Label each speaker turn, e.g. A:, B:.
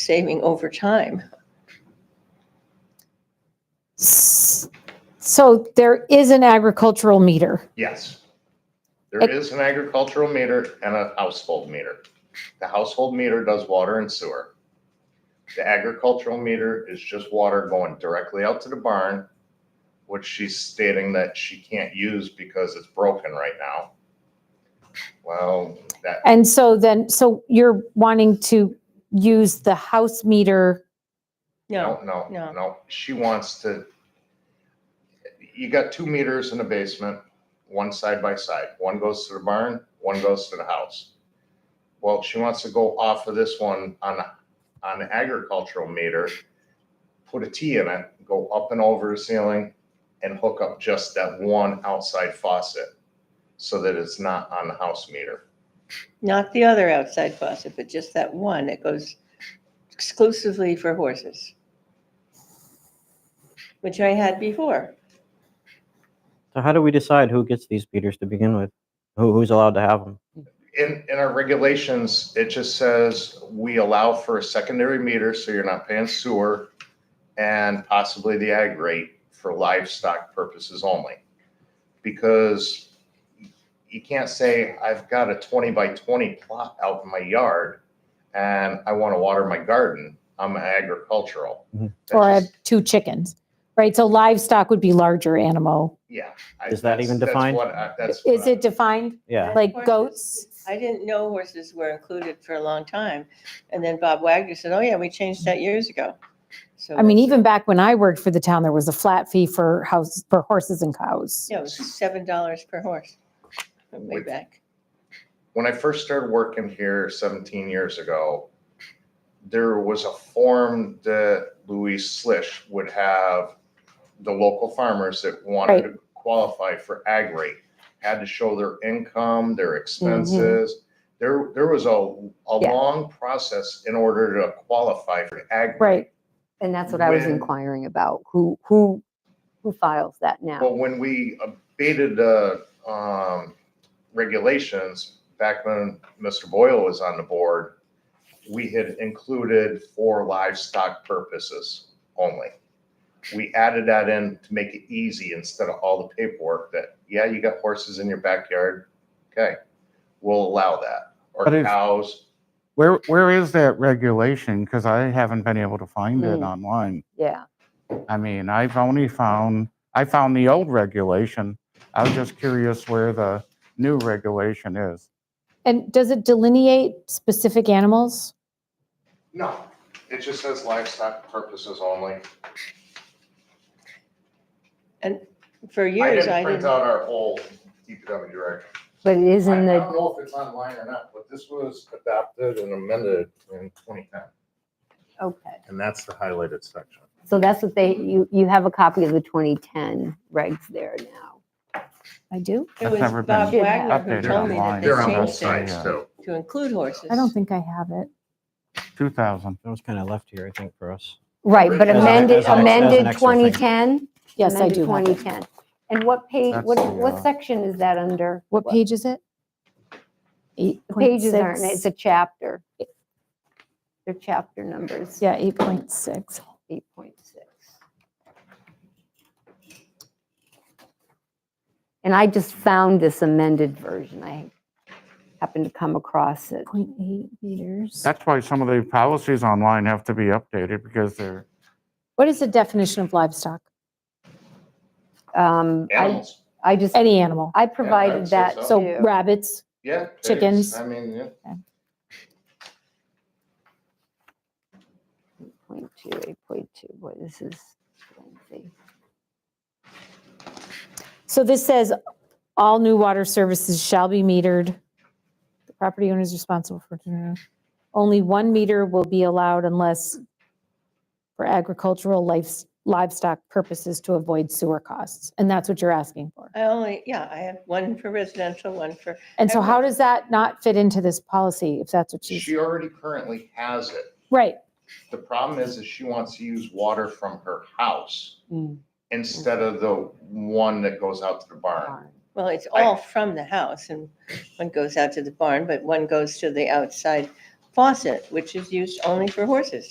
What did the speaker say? A: saving over time.
B: S- So there is an agricultural meter.
C: Yes. There is an agricultural meter and a household meter. The household meter does water and sewer. The agricultural meter is just water going directly out to the barn, which she's stating that she can't use because it's broken right now. Well, that,
B: And so then, so you're wanting to use the house meter.
C: no,
A: No,
C: no,
A: no.
C: no. She wants to. You got two meters in the basement, one side by side. One goes to the barn, one goes to the house. Well, she wants to go off of this one on, on the agricultural meter, put a T in it, go up and over the ceiling and hook up just that one outside faucet so that it's not on the house meter.
A: not the other outside faucet, but just that one that goes exclusively for horses. Which I had before.
D: So how do we decide who gets these beaters to begin with? Who, who's allowed to have them?
C: in, in our regulations, it just says we allow for a secondary meter, so you're not paying sewer and possibly the ag rate for livestock purposes only. Because you can't say, I've got a twenty by twenty plot out in my yard and I want to water my garden. I'm agricultural.
D: Mhm.
C: That's
B: Or I have
C: just-
B: two chickens, right? So livestock would be larger animal.
C: Yeah. I-
D: Is that
C: that's-
D: even
C: that's
D: defined?
C: what I- That's. what
B: Is
C: I-
B: it defined?
D: Yeah.
B: Like
A: Horses.
B: goats?
A: I didn't know horses were included for a long time. And then Bob Wagner said, oh yeah, we changed that years ago. So
B: I mean, even back when I worked for the town, there was a flat fee for houses, for horses and cows.
A: Yeah, it was seven dollars per horse. Way
C: Wait.
A: back.
C: when I first started working here 17 years ago, there was a form that Louis Slish would have the local farmers that wanted to qualify for ag rate had to show their income, their expenses. There, there was a, a
E: Yeah.
C: long process in order to qualify for ag. rate.
B: Right.
E: And that's what I was
C: When-
E: inquiring about, who, who, who files that now?
C: Well, when we abated the um, regulations, back when Mr. Boyle was on the board, we had included for livestock purposes only. We added that in to make it easy instead of all the paperwork that, yeah, you got horses in your backyard, okay, we'll allow that. Or
F: But if-
C: cows,
F: Where, where is that regulation? Because I haven't been able to find it
E: Mm.
F: online.
E: Yeah,
F: I mean, I've only found, I found the old regulation. I was just curious where the new regulation is.
B: And does it delineate specific animals?
C: no, it just says livestock purposes only.
A: For
C: I
A: years, I
C: didn't print
A: didn't,
C: out our whole DPW direction.
E: but it is
C: I I
E: in
C: don't
E: the,
C: know if it's online or not, but this was adopted and amended in 2010.
E: okay.
C: And that's the highlighted section.
E: So that's what they, you, you have a copy of the 2010 regs there now.
B: I do.
A: it
F: That's
A: was
F: never been
A: Bob Wagner who
F: updated
A: told me that
F: online.
A: they
C: They're on both
A: changed
C: sides
A: it
F: yeah.
C: too.
A: to include horses.
B: I don't think I have it.
F: 2000.
D: That was kind of left here, I think, for us.
E: Right, but
C: As an-
E: amended,
C: as an- as an
E: amended
D: extra thing.
E: 2010?
B: Yes, I
E: Amended
B: do. have it.
E: 2010. And what page,
F: That's
E: what,
F: the,
E: what
F: uh,
E: section is that under?
B: What page is it? Eight
E: The
B: point
E: Pages aren't,
B: six.
E: it's a chapter. They're chapter numbers,
B: Yeah, eight point six.
E: 8.6. And I just found this amended version. I happened to come across it.
B: Point eight meters.
F: That's why some of the policies online have to be updated because they're,
B: What is the definition of livestock?
E: Um, I,
C: Animals,
E: I just,
B: Any animal.
E: I provided
C: say
E: that
C: so.
B: So
E: too.
B: rabbits,
C: yeah. pigs,
B: Chickens.
C: I mean, yeah.
E: 8.2, 8.2, boy, this is lengthy.
B: So this says all new water services shall be metered. The property owner is responsible for, only one meter will be allowed unless for agricultural lives- livestock purposes to avoid sewer costs. And that's what you're asking for.
A: I only, yeah, I have one for residential, one for,
B: And so how does that not fit into this policy if that's what she's,
C: She already currently has it.
B: right?
C: The problem is, is she wants to use water from her house instead of the one that goes out to the barn.
A: well, it's
C: I-
A: all from the house and one goes out to the barn, but one goes to the outside faucet, which is used only for horses.